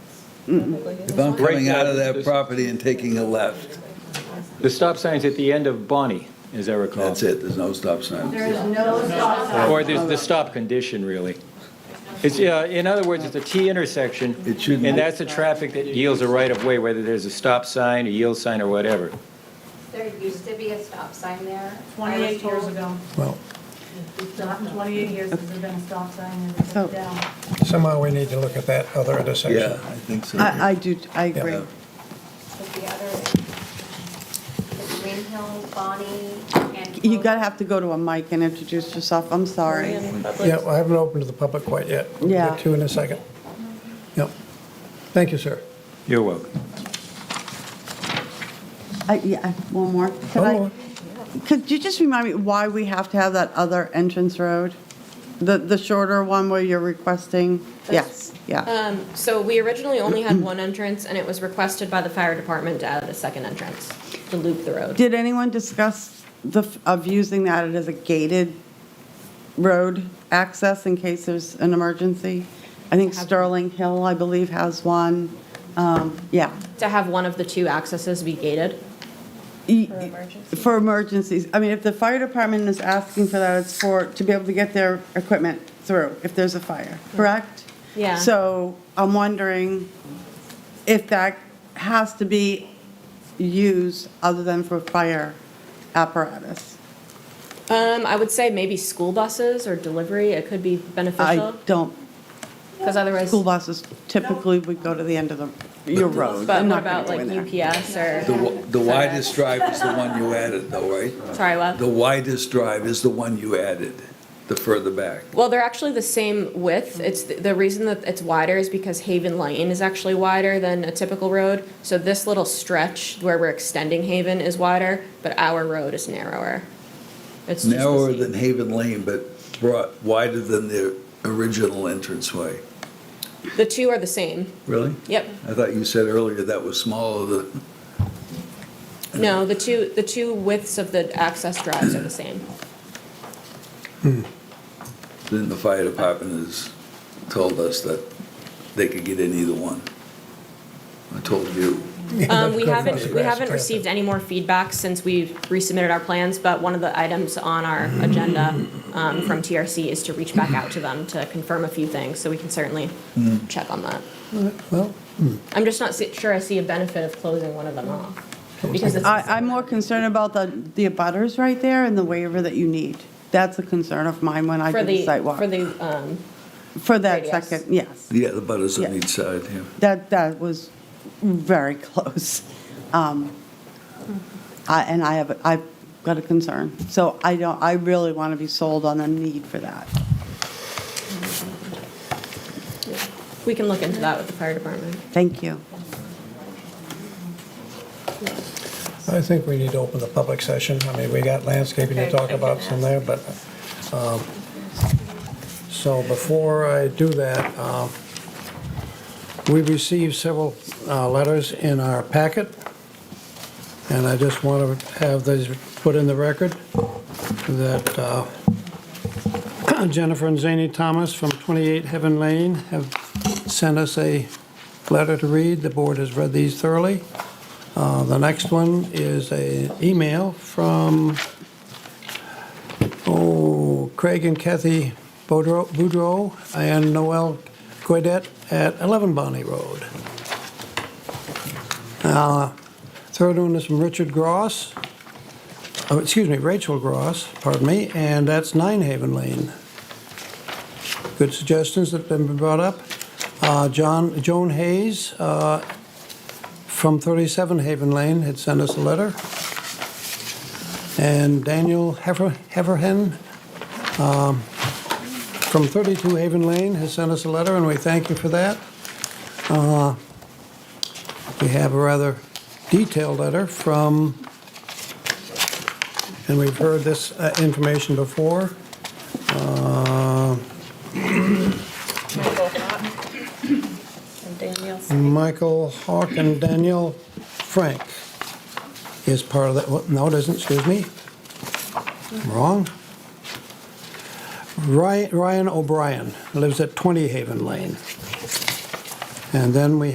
If I'm coming out of that Right. property and taking a left, The stop sign's at the end of Bonnie, as I recall. that's it, there's no stop sign. There is no stop sign. Or there's the stop condition, really. It's, uh, in other words, it's a T intersection. It shouldn't And be. that's the traffic that yields a right-of-way, whether there's a stop sign, a yield sign, or whatever. There used to be a stop sign there. I was 28 years told- ago, Well, It's not- 28 years since there's been a stop sign and it's So- down. somehow we need to look at that other Yeah, intersection. I think so. I, I do, I agree. Yeah. But the other, the Green Hill, Bonnie, and. You gotta have to go to a mic and introduce yourself, I'm sorry. Yeah, well, I haven't opened to the public quite yet. We'll get Yeah. to in a second. Yep. Thank you, sir. Um, You're welcome. I- Yeah, one more. Could One I- more. Could you just remind me why we have to have that other entrance road? The, the shorter one where you're requesting? Yes, That's- yeah. Um, So we originally only had one entrance, and it was requested by the fire department to add a second entrance to loop the road. Did anyone discuss the, f- of using that as a gated road access in case there's an emergency? I think Sterling Hill, I believe, has one. Um, Yeah. To have one of the two accesses be gated? E- For emergencies. I mean, if the fire department is asking for that, it's for, to be able to get their equipment through if there's a fire, correct? Hmm. Yeah. So I'm wondering if that has to be used other than for fire apparatus. Um, I would say maybe school buses or delivery, it could be I beneficial, don't, because otherwise, school buses typically would go to the end of the, your road. but I'm not what gonna about go like in there. UPS The or, wi- The widest drive is the one you added though, right? sorry, what? The widest drive is the one you added, the further back. Well, they're actually the same width. It's, th- the reason that it's wider is because Haven Lane is actually wider than a typical road. So this little stretch where we're extending Haven is wider, but our road is narrower. It's just the Narrower same. than Haven Lane, but brought wider than the original entranceway. The two are the same. Really? Yep. I thought you said earlier that was smaller than, No, the two, the two widths of the access drives are the same. than the fire department has told us that they could get in either one. I told you. Um, we haven't, we haven't received any more feedback since we resubmitted our plans, but one of the items on our agenda, um, from TRC is to reach back out to them to confirm a few things, so we can certainly check on that. Well, I'm just not si- sure I see a benefit of closing one of them off. Because it's, I, I'm more concerned about the, the abutters right there and the waiver that you need. That's a concern of mine when I for do the the, sidewalk. for the, um, For that Radius. second, yes. Yeah, the butters on Yeah. each side, yeah. That, that was very close. Um, I- And I have, I've got a concern. So I don't, I really want to be sold on the need for that. we can look into that with the fire department. Thank you. I think we need to open the public session. I mean, we got landscaping to talk about some there, but, um, so before I do that, um, we received several uh, letters in our packet, and I just want to have these put in the record, that uh, Jennifer and Zany Thomas from 28 Heaven Lane have sent us a letter to read. The board has read these thoroughly. Uh, The next one is a email from, oh, Craig and Kathy Boudreau- Boudreau and Noel Guedet at 11 Bonnie Road. Uh, Third one is from Richard Gross, oh, excuse me, Rachel Gross, pardon me, and that's Nine Haven Lane. Good suggestions that have been brought up. Uh, John, Joan Hayes, uh, from 37 Haven Lane had sent us a letter. And Daniel Heffer- Hefferhan um, from 32 Haven Lane has sent us a letter, and we thank you for that. Uh, We have a rather detailed letter from, and we've heard this uh, information before. Uh, Michael Hawk and Daniel Frank is part of that, well, no, it isn't, excuse me. I'm Wrong. Ryan Ryan O'Brien lives at 20 Haven Lane. And then we